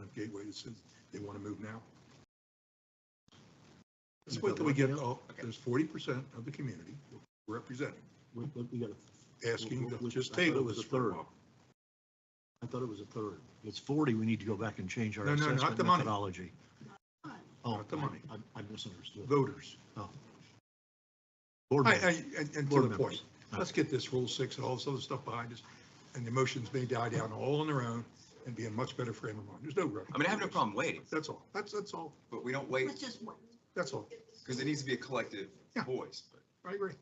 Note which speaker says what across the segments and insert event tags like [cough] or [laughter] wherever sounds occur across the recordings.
Speaker 1: at Gateway that says they want to move now. Let's wait till we get, all there's forty percent of the community represented,
Speaker 2: We, we we got a,
Speaker 1: asking to
Speaker 2: Which-
Speaker 1: just
Speaker 2: I thought it
Speaker 1: table
Speaker 2: was
Speaker 1: this
Speaker 2: a
Speaker 1: for a
Speaker 2: third.
Speaker 1: while.
Speaker 2: I thought it was a third. If It's forty, we need to go back and change our
Speaker 1: No, no, not
Speaker 2: assessment
Speaker 1: the money.
Speaker 2: methodology. Oh,
Speaker 1: Not the money.
Speaker 2: I, I misunderstood.
Speaker 1: Voters.
Speaker 2: Board
Speaker 1: I,
Speaker 2: member.
Speaker 1: I, and- and to
Speaker 2: Board
Speaker 1: the
Speaker 2: members.
Speaker 1: point, let's get this Rule 6 and all this other stuff behind us, and the motions may die down all on their own and be in much better frame of mind. There's no rush.
Speaker 3: I mean, I have no problem waiting,
Speaker 1: That's all. That's, that's all.
Speaker 3: but we don't wait
Speaker 4: Let's just wait.
Speaker 1: That's all.
Speaker 3: because it needs to be a collective
Speaker 1: Yeah.
Speaker 3: voice, but
Speaker 1: I agree.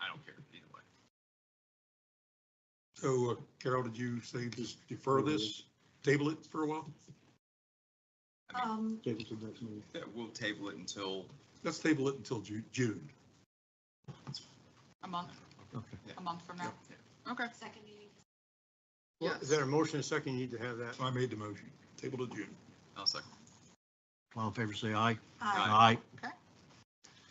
Speaker 3: I don't care either way.
Speaker 1: So uh, Carol, did you say just defer this, table it for a while?
Speaker 4: Um,
Speaker 2: Table to the next meeting.
Speaker 3: Yeah, we'll table it until,
Speaker 1: Let's table it until Ju- June.
Speaker 5: A month,
Speaker 2: Okay.
Speaker 5: a month from now? Okay.
Speaker 4: second meeting.
Speaker 6: Well,
Speaker 5: Yes.
Speaker 6: Is there a motion and a second? You need to have that.
Speaker 1: I made the motion. Table to June.
Speaker 3: I'll second.
Speaker 2: All in favor, say aye.
Speaker 4: Uh,
Speaker 3: Aye.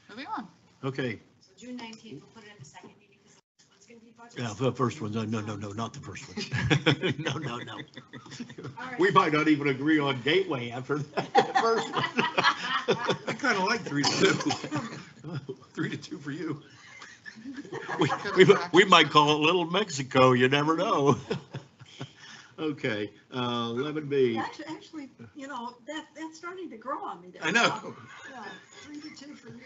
Speaker 5: Moving on.
Speaker 2: Okay,
Speaker 4: so June nineteenth, we'll put it in the second meeting because it's gonna be budget.
Speaker 2: yeah, the first one, no, no, no, no, not the first one. [laughs] No, no, no.
Speaker 4: All right. [laughs]
Speaker 2: We might not even agree on gateway after [laughs] that that first one.
Speaker 1: I kind of [laughs] like three to two. Three to two for you.
Speaker 2: [laughs] We, we, we might call it Little Mexico, you never know. [laughs] Okay, uh, eleven B,
Speaker 4: Actually, actually, you know, that, that's starting to grow on me there.
Speaker 1: I know.
Speaker 4: Yeah, Three to two for you.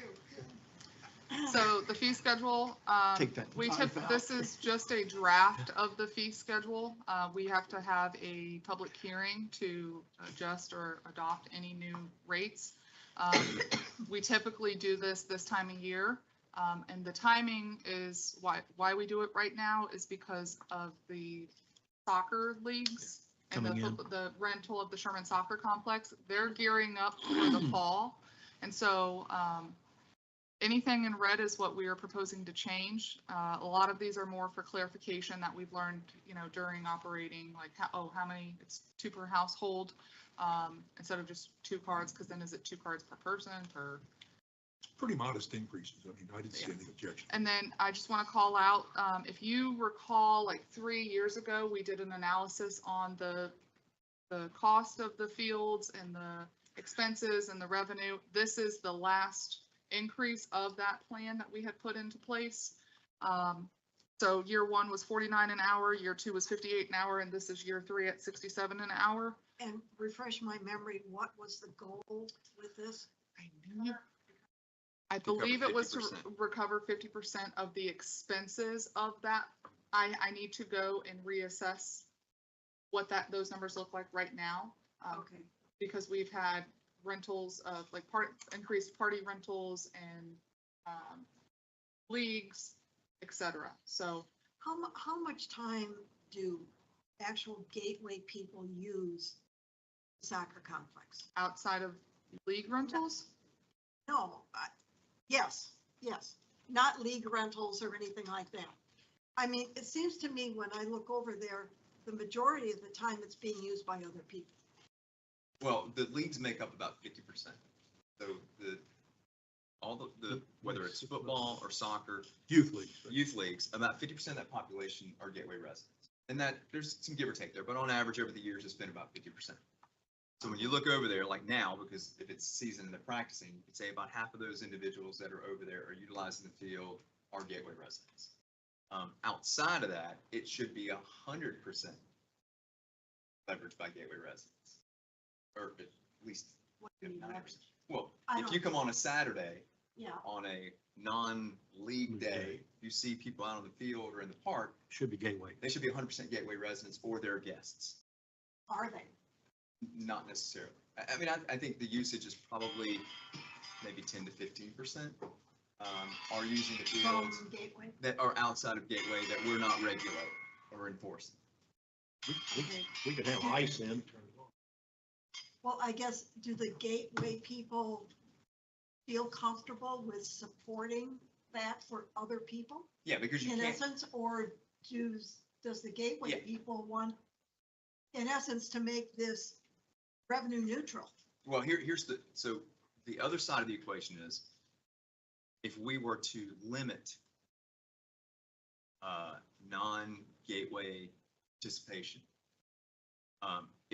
Speaker 5: So the fee schedule, um,
Speaker 2: Take that
Speaker 5: we
Speaker 2: five
Speaker 5: took, this is just a draft of the fee schedule. Uh, we have to have a public hearing to adjust or adopt any new rates. Um, We typically do this this time of year. Um, and the timing is why, why we do it right now is because of the soccer leagues and the,
Speaker 2: Coming in.
Speaker 5: fo- the rental of the Sherman Soccer Complex. They're gearing up for
Speaker 2: [clears throat]
Speaker 5: the fall. And so, um, anything in red is what we are proposing to change. Uh, a lot of these are more for clarification that we've learned, you know, during operating, like, how, oh, how many, it's two per household, um, instead of just two cards, because then is it two cards per person, per?
Speaker 1: Pretty modest increases. I mean, I didn't see any objection.
Speaker 5: And then I just want to call out, um, if you recall, like three years ago, we did an analysis on the, the cost of the fields and the expenses and the revenue. This is the last increase of that plan that we had put into place. Um, so year one was forty-nine an hour, year two was fifty-eight an hour, and this is year three at sixty-seven an hour.
Speaker 4: And refresh my memory, what was the goal with this?
Speaker 5: I knew you I
Speaker 3: cover
Speaker 5: believe it was to
Speaker 3: 50%.
Speaker 5: re- recover fifty percent of the expenses of that. I, I need to go and reassess what that, those numbers look like right now. um,
Speaker 4: Okay,
Speaker 5: Because we've had rentals of like part, increased party rentals and, um, leagues, et cetera. So
Speaker 4: how mu- how much time do actual gateway people use soccer complex?
Speaker 5: outside of league rentals,
Speaker 4: No, I- yes, yes, not league rentals or anything like that. I mean, it seems to me when I look over there, the majority of the time it's being used by other people.
Speaker 3: Well, the leagues make up about fifty percent. So the, all the, the, whether it's football or soccer,
Speaker 1: Youth league.
Speaker 3: youth leagues, about fifty percent of that population are gateway residents. And that, there's some give or take there, but on average, over the years, it's been about fifty percent. So when you look over there, like now, because if it's season and they're practicing, you could say about half of those individuals that are over there are utilizing the field are gateway residents. Um, outside of that, it should be a hundred percent leveraged by gateway residents. Or at least
Speaker 4: What do you mean by
Speaker 3: ninety
Speaker 4: that?
Speaker 3: percent. Well,
Speaker 4: I
Speaker 3: if
Speaker 4: don't-
Speaker 3: you come on a Saturday
Speaker 4: Yeah,
Speaker 3: on a non-league day, you see people out on the field or in the park,
Speaker 2: should be gateway.
Speaker 3: they should be hundred percent Gateway residents or their guests,
Speaker 4: are they?
Speaker 3: not necessarily. I, I mean, I, I think the usage is probably maybe ten to fifteen percent, um, are using the fields
Speaker 4: From gateway?
Speaker 3: that are outside of Gateway that we're not regulating or enforcing.
Speaker 2: We- we- We could have ice in.
Speaker 4: Well, I guess, do the gateway people feel comfortable with supporting that for other people?
Speaker 3: Yeah, because you
Speaker 4: in
Speaker 3: can't,
Speaker 4: essence, or does, does the gateway
Speaker 3: Yeah.
Speaker 4: people want, in essence, to make this revenue neutral?
Speaker 3: well, here, here's the, so the other side of the equation is if we were to limit uh, non-gateway participation, um,